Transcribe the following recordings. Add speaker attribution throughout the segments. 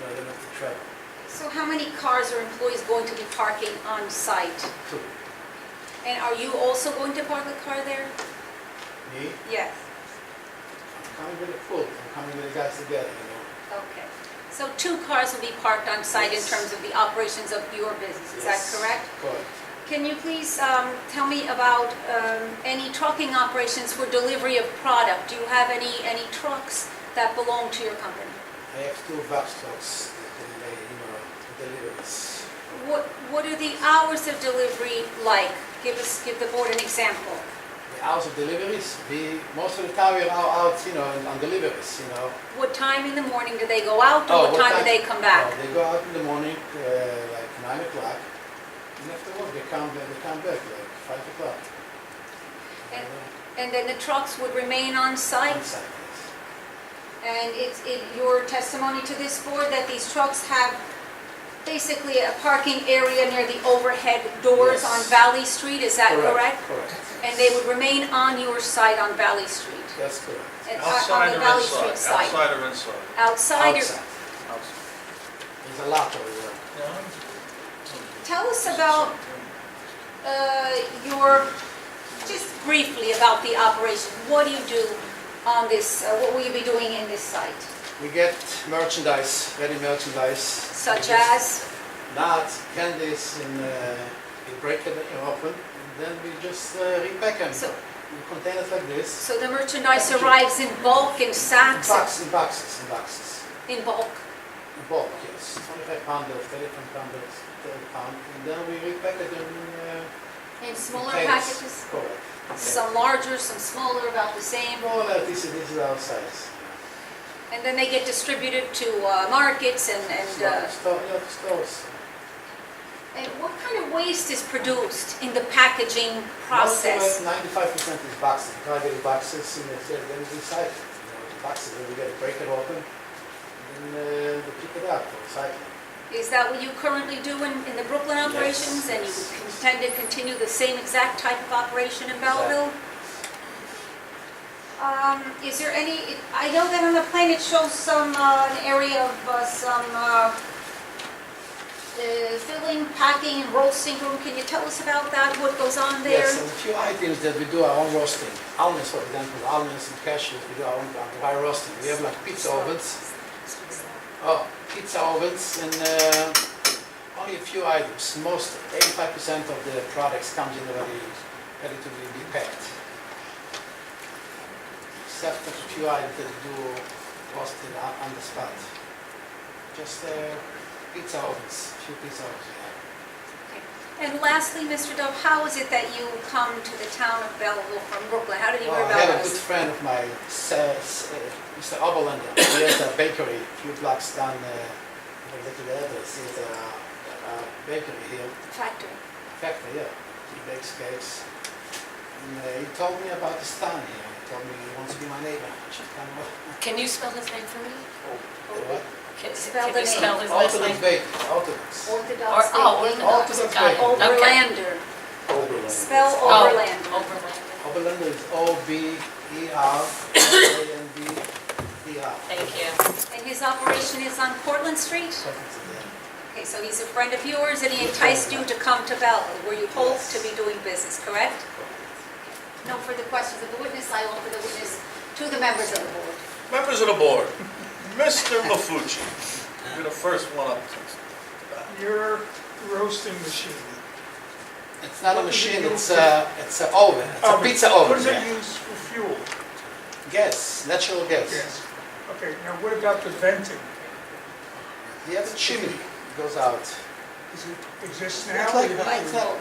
Speaker 1: That's right.
Speaker 2: So how many cars are employees going to be parking on site?
Speaker 1: Two.
Speaker 2: And are you also going to park a car there?
Speaker 1: Me,
Speaker 2: Yes.
Speaker 1: I'm coming with a crew, I'm coming with the guys together, you know.
Speaker 2: Okay. So two cars will be parked on site in
Speaker 1: Yes.
Speaker 2: terms of the operations of your business, is that
Speaker 1: Yes.
Speaker 2: correct?
Speaker 1: Correct.
Speaker 2: Can you please um, tell me about um, any trucking operations for delivery of product? Do you have any, any trucks that belong to your company?
Speaker 1: I have two box trucks that deliver, you know, deliveries.
Speaker 2: What, what are the hours of delivery like? Give us, give the board an example.
Speaker 1: The hours of deliveries, we, most of the time we're out, out, you know, on- on deliveries, you know.
Speaker 2: What time in the morning do they go out,
Speaker 1: Oh,
Speaker 2: or what
Speaker 1: what
Speaker 2: time do
Speaker 1: time-
Speaker 2: they come back?
Speaker 1: Uh, They go out in the morning, uh, like nine o'clock, and after work, they come, they come back like five o'clock. Uh,
Speaker 2: And- And then the trucks would remain on site?
Speaker 1: On site, yes.
Speaker 2: And it's it- your testimony to this board that these trucks have basically a parking area near the overhead doors
Speaker 1: Yes.
Speaker 2: on Valley Street, is that correct?
Speaker 1: Correct.
Speaker 2: And they would remain on your site on Valley Street?
Speaker 1: That's correct.
Speaker 2: and- uh, On
Speaker 3: Outside
Speaker 2: the
Speaker 3: or
Speaker 2: Valley
Speaker 3: inside?
Speaker 2: Street side?
Speaker 3: Outside or inside?
Speaker 2: Outside? or-
Speaker 1: Outside.
Speaker 3: Outside.
Speaker 1: There's a lot over there.
Speaker 2: Tell us about uh, your, just briefly about the operation. What do you do on this, uh, what will you be doing in this site?
Speaker 1: We get merchandise, ready merchandise.
Speaker 2: Such
Speaker 1: We get
Speaker 2: as?
Speaker 1: Nuts, candies, and uh, we break it open, and then we just uh, repack them.
Speaker 2: So-
Speaker 1: In containers like this.
Speaker 2: So the merchandise arrives in bulk, in
Speaker 1: In
Speaker 2: sacks,
Speaker 1: boxes, in boxes, in boxes.
Speaker 2: in bulk?
Speaker 1: In bulk, yes. 25 pounders, 35 pounders, 30 pound. And then we repack it in uh,
Speaker 2: In smaller
Speaker 1: containers.
Speaker 2: packages?
Speaker 1: Correct.
Speaker 2: Some larger, some smaller, about the same.
Speaker 1: More or less, this is, this is our size.
Speaker 2: And then they get distributed to uh, markets and, and,
Speaker 1: Store-
Speaker 2: uh,
Speaker 1: Store, yeah, stores.
Speaker 2: and what kind of waste is produced in the packaging
Speaker 1: Most of
Speaker 2: process?
Speaker 1: it, 95% is boxes, private boxes, and it's, uh, then we recycle. You know, the boxes, then we get break it open, and then uh, we pick it up for recycling.
Speaker 2: Is that what you currently do in, in the Brooklyn
Speaker 1: Yes,
Speaker 2: operations? And you
Speaker 1: yes.
Speaker 2: intend to continue the same exact type of operation in Belleville? Um, is there any, I know that on the plan it shows some, uh, an area of, uh, some, uh, uh, filling, packing, and roasting room. Can you tell us about that, what goes on there?
Speaker 1: Yes, and a few items that we do our own roasting. Almonds, for example, almonds and cashews, we do our own uh, dry roasting. We have like pizza ovens, oh, pizza ovens, and uh, only a few items. Most, 85% of the products comes in already, ready to be be packed. Except for a few items that we do roasting on on the spot. Just uh, pizza ovens, few pizza ovens. we have.
Speaker 2: And lastly, Mr. Dove, how is it that you come to the town of Belleville from Brooklyn? How did you hear
Speaker 1: Well, I
Speaker 2: about
Speaker 1: have a good
Speaker 2: us?
Speaker 1: friend of mine, S- S- uh, Mr. Oberlander. He has a bakery a few blocks down, uh, I forget the address. He has a a bakery here,
Speaker 2: Factory.
Speaker 1: factory, yeah. He bakes cakes. And uh, he told me about this town here. He told me he wants to be my neighbor. I should come over.
Speaker 4: Can you spell his name for me?
Speaker 5: Oh.
Speaker 1: What?
Speaker 4: Can
Speaker 2: Spell
Speaker 4: can
Speaker 2: the
Speaker 4: you
Speaker 2: name.
Speaker 4: spell his last
Speaker 1: Orthodox
Speaker 4: name?
Speaker 1: bakery, Orthodox.
Speaker 2: Orthodox
Speaker 4: Or- oh,
Speaker 2: thinking.
Speaker 4: Orthodox,
Speaker 1: got it.
Speaker 4: Okay.
Speaker 2: Overlander.
Speaker 1: Oberlander.
Speaker 2: Spell
Speaker 4: Oh,
Speaker 2: Overlander.
Speaker 4: Overlander.
Speaker 1: Oberlander is E O-B-E-R-L-A-N-D-E-R.
Speaker 4: Thank you.
Speaker 2: And his operation is on Portland Street? Okay, so he's a friend of yours and he enticed you to come to Belleville, where you hope
Speaker 1: Yes.
Speaker 2: to be doing business, correct? No further questions of the witness. I offer the witness to the members of the board.
Speaker 3: Members of the board, Mr. Mafucci, you're the first one up.
Speaker 5: Your roasting machine.
Speaker 1: It's not a
Speaker 5: What is it
Speaker 1: machine,
Speaker 5: used
Speaker 1: it's
Speaker 5: for?
Speaker 1: a, it's a oven, it's a
Speaker 5: Oven.
Speaker 1: pizza oven.
Speaker 5: What does
Speaker 1: yeah.
Speaker 5: it use for fuel?
Speaker 1: Gas, natural gas.
Speaker 5: Okay, now what about the venting?
Speaker 1: You have a chimney, goes out.
Speaker 5: Does it exist now?
Speaker 1: It's like metal.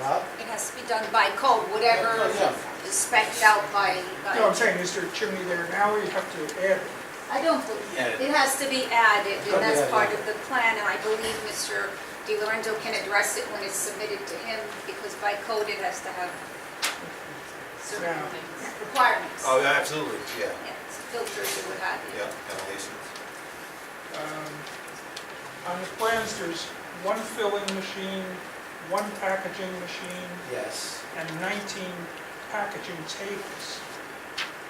Speaker 1: Huh?
Speaker 2: It has to be done by code, whatever
Speaker 1: Yeah.
Speaker 2: is spec'd out by, by-
Speaker 5: No, I'm saying, is there a chimney there now, or you have to add it?
Speaker 2: I don't believe, it has to be added, and that's part of the plan, and I believe Mr. Di Lorenzo can address it when it's submitted to him, because by code, it has to have certain
Speaker 5: Now,
Speaker 2: requirements.
Speaker 3: Oh, yeah, absolutely, yeah,
Speaker 2: Yeah, it's Filters or what have you.
Speaker 3: yeah, elevations.
Speaker 5: um, on the plans, there's one filling machine, one packaging machine,
Speaker 1: Yes.
Speaker 5: and 19 packaging tables.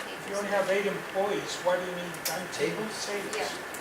Speaker 5: If you only have eight employees, why do you need 19
Speaker 1: Tables?
Speaker 5: tables?
Speaker 2: Yeah.